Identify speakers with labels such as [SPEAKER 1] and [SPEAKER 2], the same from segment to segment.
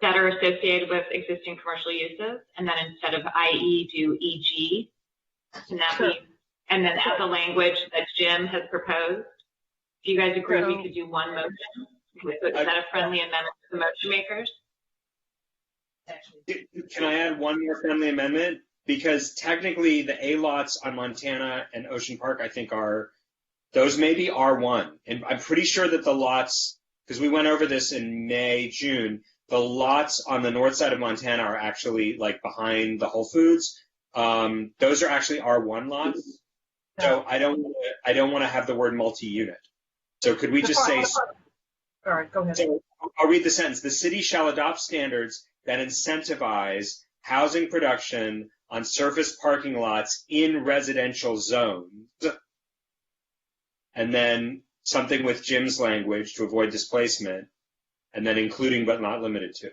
[SPEAKER 1] that are associated with existing commercial uses, and then instead of IE, do EG. And that
[SPEAKER 2] Sure.
[SPEAKER 1] means, and then add the language that Jim has proposed. Do you guys agree we
[SPEAKER 2] So-
[SPEAKER 1] could do one motion? Is that a friendly amendment to the motion makers?
[SPEAKER 3] Can I add one more friendly amendment? Because technically, the A lots on Montana and Ocean Park, I think, are those may be R1. And I'm pretty sure that the lots, because we went over this in May, June, the lots on the north side of Montana are actually like behind the Whole Foods. Um, those are actually R1 lots. So I don't, wanna- I don't want to have the word multi-unit. So could we just say?
[SPEAKER 2] All right, go ahead.
[SPEAKER 3] So I'll read the sentence. The city shall adopt standards that incentivize housing production on surface parking lots in residential zones. And then something with Jim's language to avoid displacement, and then including but not limited to.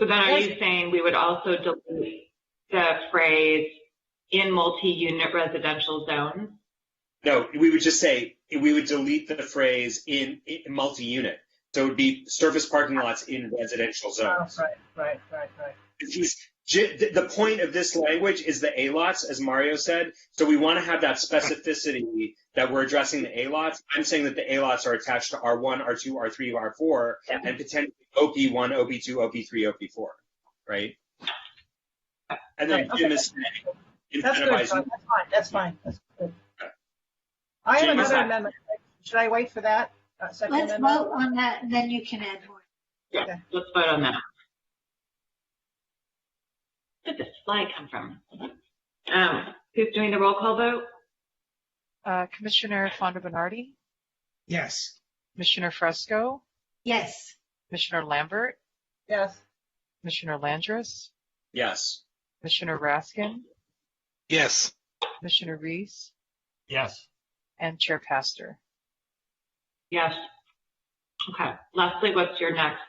[SPEAKER 1] So then are you
[SPEAKER 2] Yes.
[SPEAKER 1] saying we would also delete the phrase in multi-unit residential zones?
[SPEAKER 3] No, we would just say, we would delete the phrase in, in multi-unit. So it would be surface parking lots in residential
[SPEAKER 2] Oh,
[SPEAKER 3] zones.
[SPEAKER 2] Right, right, right, right.
[SPEAKER 3] He's- J- th- the point of this language is the A lots, as Mario said. So we want to have that specificity that we're addressing the A lots. I'm saying that the A lots are attached to R1, R2, R3, R4,
[SPEAKER 2] Yeah.
[SPEAKER 3] and potentially OP1, OP2, OP3, OP4, right? And then
[SPEAKER 2] Right,
[SPEAKER 3] Jim
[SPEAKER 2] okay.
[SPEAKER 3] is
[SPEAKER 2] That's
[SPEAKER 3] saying
[SPEAKER 2] good, John. That's
[SPEAKER 3] incentivize.
[SPEAKER 2] fine, that's fine, that's good. I have
[SPEAKER 3] Jim, is
[SPEAKER 2] another
[SPEAKER 3] that-
[SPEAKER 2] amendment. Should I wait for that? Uh, Second
[SPEAKER 4] Let's
[SPEAKER 2] amendment?
[SPEAKER 4] vote on that, and then you can add more.
[SPEAKER 1] Yeah,
[SPEAKER 2] Okay.
[SPEAKER 1] let's vote on that. Where did this slide come from? Um, who's doing the roll call vote?
[SPEAKER 5] Uh, Commissioner Fonda Bernardi,
[SPEAKER 6] Yes.
[SPEAKER 5] Commissioner Fresco,
[SPEAKER 4] Yes,
[SPEAKER 5] Commissioner Lambert,
[SPEAKER 2] Yes,
[SPEAKER 5] Commissioner Landris,
[SPEAKER 3] Yes.
[SPEAKER 5] Commissioner Raskin,
[SPEAKER 6] Yes.
[SPEAKER 5] Commissioner Reese,
[SPEAKER 6] Yes.
[SPEAKER 5] and Chair Pastor.
[SPEAKER 1] Yes. Okay, Leslie, what's your next?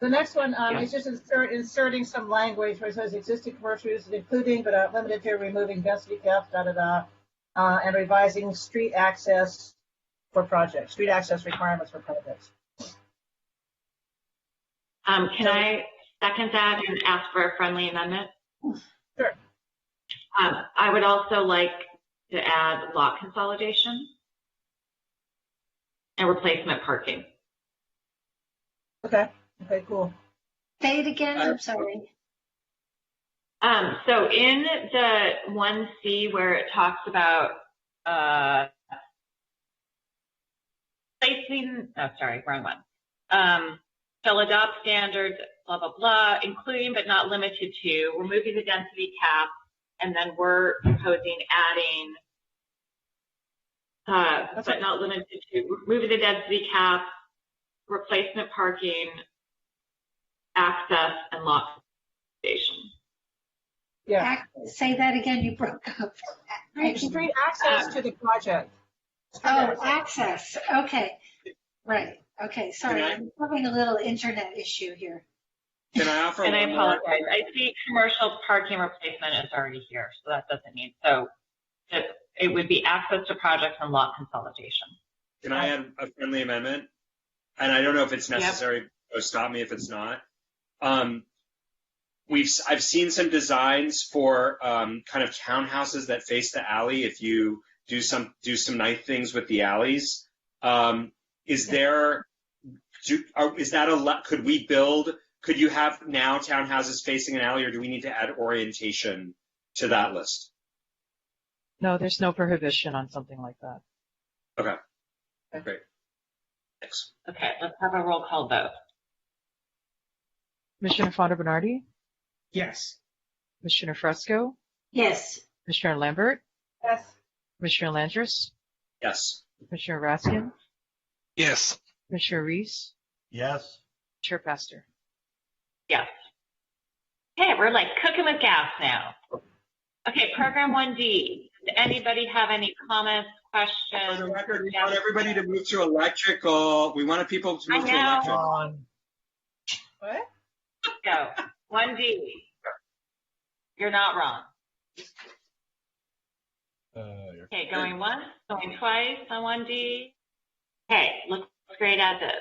[SPEAKER 2] the next one, um,
[SPEAKER 1] Yeah.
[SPEAKER 2] is just insert, inserting some language where it says existing commercial uses including but not limited to removing density cap, da, da, da, uh, and revising street access for projects, street access requirements for projects.
[SPEAKER 1] Um, can I second that and ask for a friendly amendment?
[SPEAKER 2] Sure.
[SPEAKER 1] Um, I would also like to add lot consolidation and replacement parking.
[SPEAKER 2] Okay, okay, cool.
[SPEAKER 4] say it again,
[SPEAKER 2] Uh,
[SPEAKER 4] I'm sorry.
[SPEAKER 1] Um, so in the one C where it talks about, uh, placing, oh, sorry, wrong one. Um, shall adopt standards, blah, blah, blah, including but not limited to, removing the density cap, and then we're proposing adding, uh, but
[SPEAKER 2] That's right.
[SPEAKER 1] not limited to, removing the density cap, replacement parking, access, and lot station.
[SPEAKER 2] Yeah.
[SPEAKER 4] Ac- Say that again, you broke up.
[SPEAKER 2] Street access to the project. Street
[SPEAKER 4] Oh,
[SPEAKER 2] access.
[SPEAKER 4] access, okay. Right, okay, sorry, I'm having a little internet issue here.
[SPEAKER 3] Can I offer
[SPEAKER 1] And I
[SPEAKER 3] one more?
[SPEAKER 1] apologize. I see commercial parking replacement is already here, so that doesn't need, so it, it would be access to projects and lot consolidation.
[SPEAKER 3] Can I add a friendly amendment? And I don't know if it's necessary, so stop me if it's not. Um, we've, I've seen some designs for, um, kind of townhouses that face the alley if you do some, do some nice things with the alleys. Um, is there, do, are, is that a, le- could we build, could you have now townhouses facing an alley or do we need to add orientation to that list?
[SPEAKER 5] No, there's no prohibition on something like that.
[SPEAKER 3] Thanks.
[SPEAKER 1] Okay, let's have a roll call vote.
[SPEAKER 5] Commissioner Fonda Bernardi,
[SPEAKER 6] Yes.
[SPEAKER 5] Commissioner Fresco,
[SPEAKER 4] Yes,
[SPEAKER 5] Commissioner Lambert,
[SPEAKER 2] Yes,
[SPEAKER 5] Commissioner Landris,
[SPEAKER 3] Yes.
[SPEAKER 5] Commissioner Raskin,
[SPEAKER 6] Yes.
[SPEAKER 5] Commissioner Reese,
[SPEAKER 6] Yes.
[SPEAKER 5] Chair Pastor.
[SPEAKER 1] Yes. Okay, we're like cooking with gas now. Okay, program one D. Does anybody have any comments,
[SPEAKER 3] For the
[SPEAKER 1] questions?
[SPEAKER 3] record, we want everybody to move to electrical. We wanted people to move to
[SPEAKER 1] I know.
[SPEAKER 3] electrical.
[SPEAKER 6] On.
[SPEAKER 2] what?
[SPEAKER 1] Go. One D. You're not wrong. Okay, going once, going twice on one D. Okay, looks great at this.